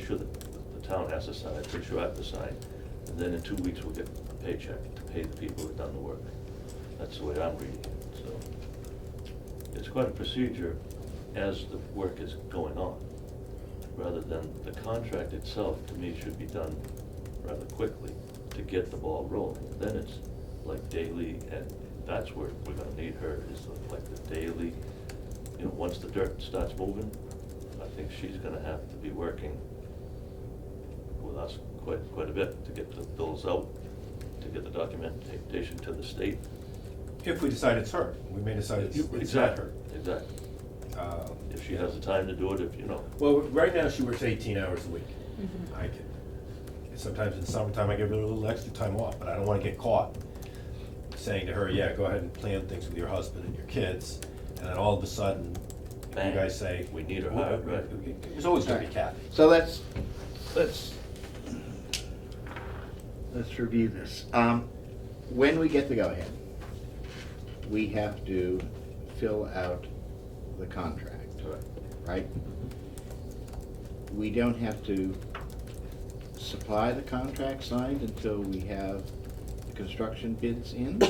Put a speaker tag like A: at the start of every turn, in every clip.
A: sure that the town has to sign, pretty sure I have to sign. And then in two weeks, we'll get a paycheck to pay the people who've done the work. That's the way I'm reading it, so. It's quite a procedure as the work is going on, rather than the contract itself, to me, should be done rather quickly to get the ball rolling. Then it's like daily, and that's where we're gonna need her, is like the daily, you know, once the dirt starts moving, I think she's gonna have to be working with us quite, quite a bit to get the bills out, to get the documentation to the state.
B: If we decide it's her, we may decide it's, it's not
A: Exactly,
B: her.
A: exactly.
B: Um,
A: If she has the time to do it, if, you know,
B: Well, right now she works eighteen hours a week.
C: Mhm.
B: I can, sometimes in the summertime I give her a little extra time off, but I don't wanna get caught saying to her, yeah, go ahead and plan things with your husband and your kids, and then all of a sudden, you
A: Bang.
B: guys say.
A: We need her
B: "Well,
A: hired," right.
B: It was always gonna be Kathy.
D: So let's, let's, let's review this. Um, when we get the go-ahead, we have to fill out the contract,
A: correct.
D: right? We don't have to supply the contract signed until we have the construction bids in?
A: You-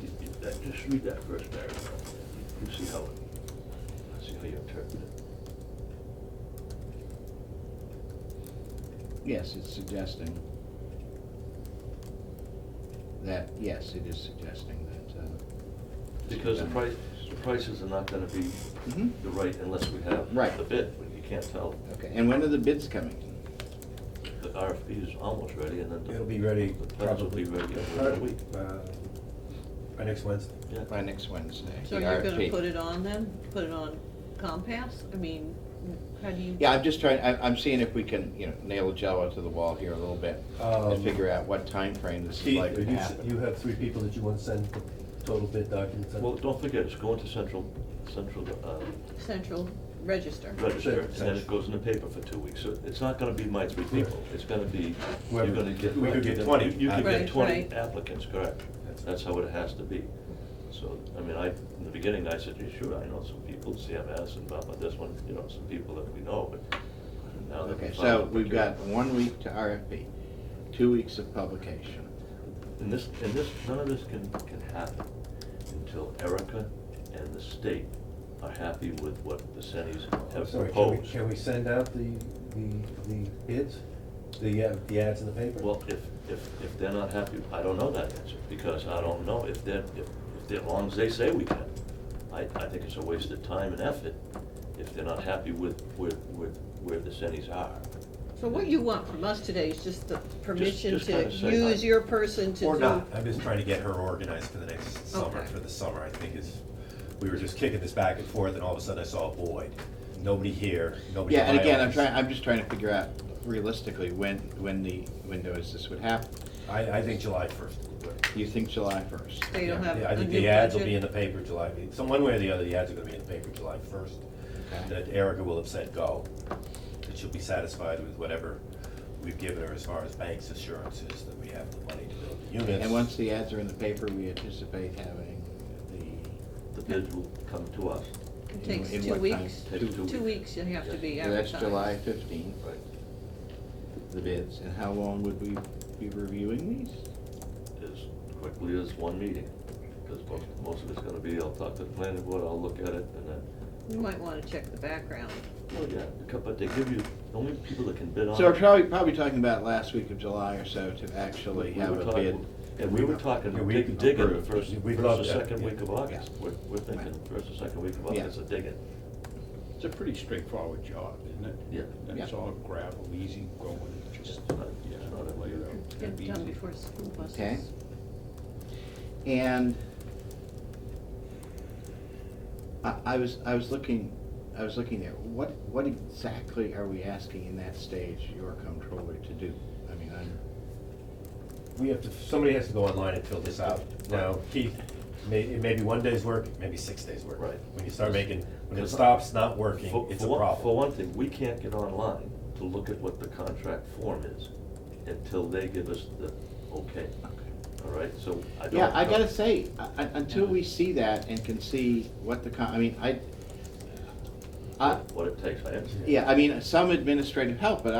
A: you- that- Just read that first paragraph, you see how, it- see how you interpret it.
D: Yes, it's suggesting that, yes, it is suggesting that, uh.
A: Because the
D: that-
A: price, the prices are not gonna be
B: Mm-hmm.
D: Mhm.
A: the right unless we have
D: Right.
A: the bid, you can't tell.
D: Okay, and when are the bids coming?
A: The RFP is almost ready and then. the-
B: It'll be ready
A: The plans will
B: probably.
A: be ready in a week,
B: uh, By next Wednesday.
A: yeah.
D: By next Wednesday.
C: So
D: the
C: you're gonna
D: RFP.
C: put it on them, put it on Compass? I mean, how do you?
D: Yeah, I'm just trying, I'm, I'm seeing if we can, you know, nail a Jello to the wall here a little bit
B: Um,
D: and figure out what time frame this is
B: Keith,
D: likely to
B: you, s- you
D: happen.
B: have three people that you want to send the total bid documents? on?
A: Well, don't forget, it's going to central, central, uh,
C: Central Register.
A: register, and then it goes in the paper for two weeks. So it's not gonna be my three people, it's gonna be, you're
B: Whoever-
A: gonna get.
B: we could get
A: you-
B: 20
A: You could get
C: applicants. Right,
A: twenty
C: right.
A: applicants, correct.
B: That's-
A: That's how it has to be. So, I mean, I, in the beginning, I said, "Yeah, sure, I know some people, CMS and blah, blah, this one, you know, some people that we know, but now that.
D: Okay,
A: we
D: so
A: found-
D: we've got one week to RFP, two weeks of publication.
A: And this, and this, none of this can, can happen until Erica and the state are happy with what the Sennys
B: I'm
A: have
B: Oh, sorry, can we-
A: proposed.
B: Can we send out the, the, the bids, the, uh, the ads in the paper?
A: Well, if, if, if they're not happy, I don't know that answer, because I don't know if they're, if, if they're, as long as they say we can. I, I think it's a waste of time and effort if they're not happy with, with, with where the Sennys are.
C: So what you want from us today is just the permission
A: just
C: to
A: kinda say hi.
C: use your person to do.
B: Or not, I'm just trying to get her organized for the next summer,
C: Okay.
B: for the summer, I think is, we were just kicking this back and forth, and all of a sudden I saw a void. Nobody here, nobody.
D: Yeah,
B: in
D: and
B: my
D: again, I'm
B: office.
D: trying, I'm just trying to figure out realistically when, when the, when notice this would happen.
B: I, I think July first.
D: You think July first?
C: They don't have
B: Yeah, I
C: a
B: think
C: new
B: the ads will be in
C: budget.
B: the paper July, some, one way or the other, the ads are gonna be in the paper July first.
D: Okay.
B: That Erica will have said go, that she'll be satisfied with whatever we've given her as far as bank's assurances that we have the money to build the units.
D: And once the ads are in the paper, we anticipate having
A: The bids will come to us.
D: the.
C: It takes
D: in
C: two
D: what time?
C: weeks.
A: Takes two
C: Two
A: weeks.
C: weeks you have to be
D: So that's
C: advertised.
D: July fifteenth.
A: Right.
D: the bids, and how long would we be reviewing these?
A: As quickly as one meeting, because most, most of it's gonna be, I'll talk to the planning board, I'll look at it, and then,
C: You might wanna check the background.
A: oh yeah, but they give you, only people that can bid on it.
D: So we're probably, probably talking about last week of July or so to actually
A: We
D: have
A: were
D: a
A: talking-
D: bid.
A: And we were talking,
B: Yeah, we
A: dig-
B: can
A: digging the
B: approve.
A: first,
B: We'd
A: first
B: love
A: or
B: that,
A: second
B: yeah.
A: week of August. We're, we're thinking
D: Right.
A: first or second week of
D: Yeah.
A: August, a digging.
E: It's a pretty straightforward job, isn't it?
A: Yeah.
E: And It's
D: Yeah.
E: all gravel, easy going, just,
A: It's not-
E: yeah,
A: it's not a
E: lay it out.
C: Get it done
E: Easy.
C: before school buses.
D: Okay. And I, I was, I was looking, I was looking there, what, what exactly are we asking in that stage your comptroller to do? I mean, I'm,
B: We have to, somebody has to go online and fill this out. Now, Keith, may, it may be one day's work, it may be six days' work.
A: Right.
B: When you start making, when it
A: Because-
B: stops not working,
A: For,
B: it's
A: for
B: a
A: one, for
B: problem.
A: one thing, we can't get online to look at what the contract form is until they give us the okay, all right? So I don't.
D: Yeah, I
A: know.
D: gotta say, u- u- until we see that and can see what the, con- I uh, mean, I, I,
A: What it takes, I understand.
D: yeah, I mean, some administrative help, but